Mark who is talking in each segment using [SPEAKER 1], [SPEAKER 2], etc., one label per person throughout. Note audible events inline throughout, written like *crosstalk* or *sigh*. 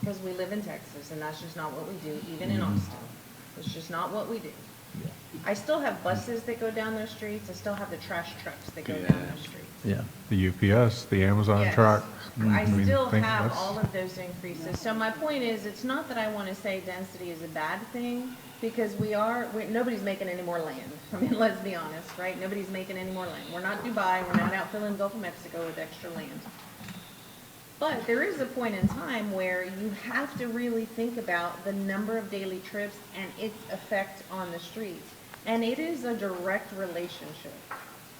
[SPEAKER 1] because we live in Texas, and that's just not what we do, even in Austin. It's just not what we do. I still have buses that go down those streets, I still have the trash trucks that go down those streets.
[SPEAKER 2] Yeah.
[SPEAKER 3] The UPS, the Amazon
[SPEAKER 1] Yes.
[SPEAKER 3] truck.
[SPEAKER 1] I
[SPEAKER 3] mean,
[SPEAKER 1] still
[SPEAKER 3] Mm-hmm. think
[SPEAKER 1] have
[SPEAKER 3] that's-
[SPEAKER 1] all of those increases. So my point is, it's not that I want to say density is a bad thing, because we are, we- nobody's making any more land. *laughs* I mean, let's be honest, right? Nobody's making any more land. We're not Dubai, we're not out filling the Gulf of Mexico with extra land. But there is a point in time where you have to really think about the number of daily trips and its effect on the streets. And it is a direct relationship.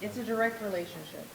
[SPEAKER 1] It's a direct relationship.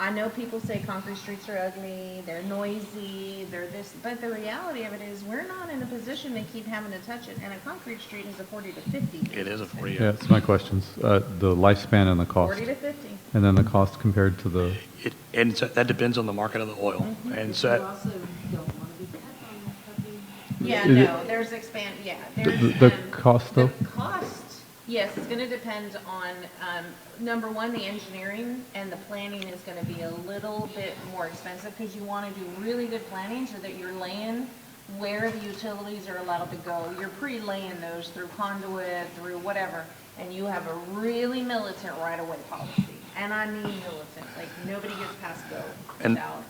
[SPEAKER 1] I know people say concrete streets are ugly, they're noisy, they're this, but the reality of it is, we're not in a position to keep having to touch it, and a concrete street is a forty to fifty.
[SPEAKER 4] It is a forty.
[SPEAKER 2] Yeah, that's my questions. Uh, the lifespan and the cost.
[SPEAKER 1] Forty to fifty.
[SPEAKER 2] And then the cost compared to the,
[SPEAKER 4] It- And so that depends on the market of the oil. And so,
[SPEAKER 5] You
[SPEAKER 4] that-
[SPEAKER 5] also don't want to be cut on puppy.
[SPEAKER 1] Yeah,
[SPEAKER 2] Is it-
[SPEAKER 1] no, there's expand, yeah,
[SPEAKER 2] the,
[SPEAKER 1] there's.
[SPEAKER 2] the
[SPEAKER 1] um,
[SPEAKER 2] cost
[SPEAKER 1] The
[SPEAKER 2] though?
[SPEAKER 1] cost, yes, it's gonna depend on, um, number one, the engineering and the planning is gonna be a little bit more expensive because you wanna do really good planning so that you're laying where the utilities are allowed to go. You're pre-laying those through conduit, through whatever, and you have a really militant right-of-way policy. And I mean militant, like nobody gets past go
[SPEAKER 4] And-
[SPEAKER 1] without.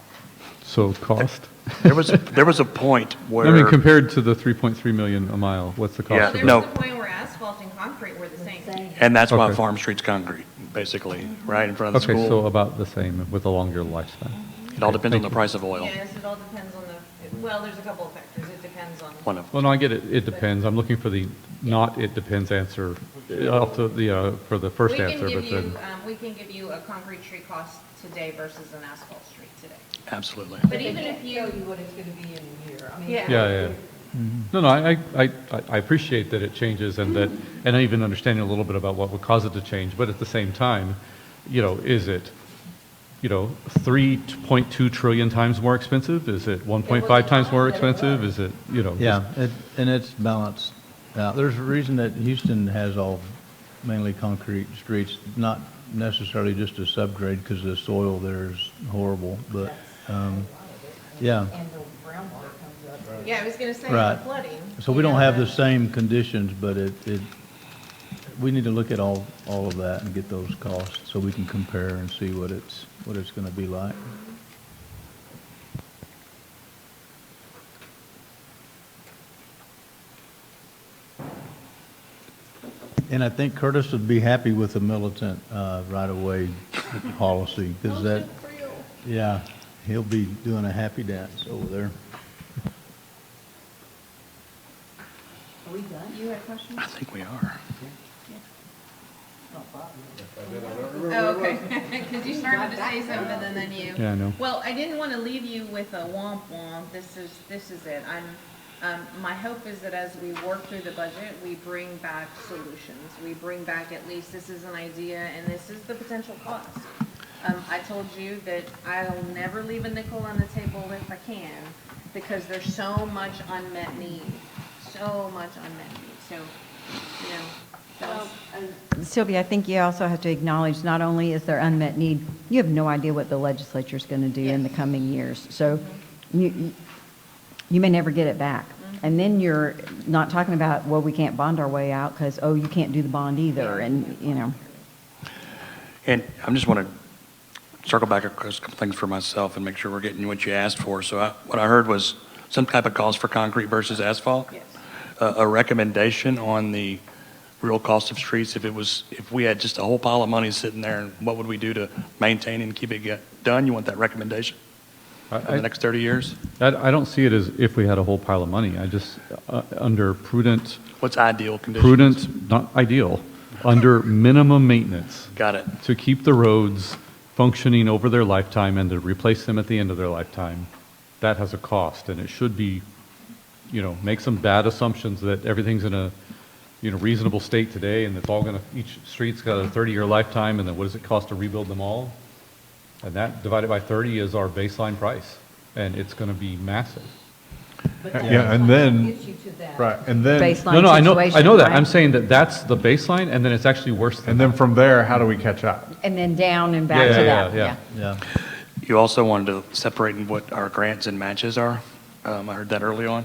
[SPEAKER 2] So cost?
[SPEAKER 4] there was, there was a point where.
[SPEAKER 2] *laughs* I mean, compared to the 3.3 million a mile, what's the
[SPEAKER 4] Yeah,
[SPEAKER 2] cost of
[SPEAKER 1] There's
[SPEAKER 2] that?
[SPEAKER 4] no.
[SPEAKER 1] the point where asphalt and concrete were the same.
[SPEAKER 4] And that's why
[SPEAKER 2] Okay.
[SPEAKER 4] Farm Street's concrete, basically, right in front of the
[SPEAKER 2] Okay, so
[SPEAKER 4] school.
[SPEAKER 2] about the same with a longer lifespan.
[SPEAKER 4] It all depends on
[SPEAKER 2] thank
[SPEAKER 4] the
[SPEAKER 2] you.
[SPEAKER 4] price of oil.
[SPEAKER 1] Yes, it all depends on the, well, there's a couple of factors. It depends on.
[SPEAKER 4] One of,
[SPEAKER 2] Well, no, I get it, it depends. I'm looking for the not it depends answer, uh, off the- the, uh, for the
[SPEAKER 1] We
[SPEAKER 2] first
[SPEAKER 1] can
[SPEAKER 2] answer,
[SPEAKER 1] give you,
[SPEAKER 2] but then,
[SPEAKER 1] um, We can give you a concrete tree cost today versus an asphalt street today.
[SPEAKER 4] absolutely.
[SPEAKER 1] But even if
[SPEAKER 5] Tell
[SPEAKER 1] you,
[SPEAKER 5] you what it's going to be in a year. I mean,
[SPEAKER 1] Yeah.
[SPEAKER 2] yeah, yeah.
[SPEAKER 6] um,
[SPEAKER 2] No, no, I, I, I- I appreciate that it changes and that, and I even understanding a little bit about what would cause it to change, but at the same time, you know, is it, you know, 3.2 trillion times more expensive? Is it 1.5 times more expensive? Is it, you know? just-
[SPEAKER 6] Yeah, it- and it's balanced. out. There's a reason that Houston has all mainly concrete streets, not necessarily just a subgrade because the soil there is horrible, but, um, yeah.
[SPEAKER 5] And the groundwater comes up.
[SPEAKER 1] yeah, I was going to say
[SPEAKER 6] Right.
[SPEAKER 1] the flooding.
[SPEAKER 6] So we
[SPEAKER 1] you
[SPEAKER 6] don't
[SPEAKER 1] know,
[SPEAKER 6] have
[SPEAKER 1] that-
[SPEAKER 6] the same conditions, but it, it, we need to look at all, all of that and get those costs so we can compare and see what it's, what it's going to be like. And I think Curtis would be happy with the militant uh, right-of-way policy because that, yeah, he'll be doing a happy dance over there.
[SPEAKER 5] Are we done? You had a question?
[SPEAKER 4] I think we are.
[SPEAKER 1] Oh, okay. *laughs* Because you started to say something and then you.
[SPEAKER 2] Yeah, I know.
[SPEAKER 1] Well, I didn't want to leave you with a womp womp. This is, this is it. I'm, um, my hope is that as we work through the budget, we bring back solutions. We bring back at least this is an idea and this is the potential cost. Um, I told you that I'll never leave a nickel on the table if I can because there's so much unmet need, so much unmet need. So, you know, that was.
[SPEAKER 7] Sylvia, I think you also have to acknowledge, not only is there unmet need, you have no idea what the legislature's going to do in the coming years. So you, you- you may never get it back.
[SPEAKER 5] Mm-hmm.
[SPEAKER 7] And then you're not talking about, well, we can't bond our way out because, oh, you can't do the bond either, and, you know.
[SPEAKER 4] And I'm just want to circle back across a couple things for myself and make sure we're getting what you asked for. So I- what I heard was some type of cost for concrete versus asphalt?
[SPEAKER 1] Yes.
[SPEAKER 4] A a recommendation on the real cost of streets, if it was, if we had just a whole pile of money sitting there, and what would we do to maintain and keep it get- done? You want that recommendation
[SPEAKER 2] I-
[SPEAKER 4] for the
[SPEAKER 2] I-
[SPEAKER 4] next 30 years?
[SPEAKER 2] I, I don't see it as if we had a whole pile of money. I just, uh, under prudent,
[SPEAKER 4] What's ideal conditions?
[SPEAKER 2] prudent, not ideal, under minimum maintenance
[SPEAKER 4] Got it.
[SPEAKER 2] to keep the roads functioning over their lifetime and to replace them at the end of their lifetime, that has a cost and it should be, you know, make some bad assumptions that everything's in a, you know, reasonable state today and it's all gonna, each street's got a 30-year lifetime and then what does it cost to rebuild them all? And that divided by 30 is our baseline price and it's gonna be massive.
[SPEAKER 5] But
[SPEAKER 3] Uh, Yeah,
[SPEAKER 5] that's
[SPEAKER 3] and
[SPEAKER 5] what
[SPEAKER 3] then-
[SPEAKER 5] Gets you to that.
[SPEAKER 3] Right, and then,
[SPEAKER 7] Baseline.
[SPEAKER 2] No, no, I know, I know that.
[SPEAKER 7] situation,
[SPEAKER 2] I'm
[SPEAKER 7] right?
[SPEAKER 2] saying that that's the baseline and then it's actually worse than
[SPEAKER 3] and then from there, how do we catch up?
[SPEAKER 7] And then down and back
[SPEAKER 2] Yeah,
[SPEAKER 7] to
[SPEAKER 2] yeah,
[SPEAKER 7] that,
[SPEAKER 2] yeah, yeah.
[SPEAKER 7] yeah.
[SPEAKER 6] Yeah.
[SPEAKER 4] You also wanted to separate in what our grants and matches are. Um, I heard that early on.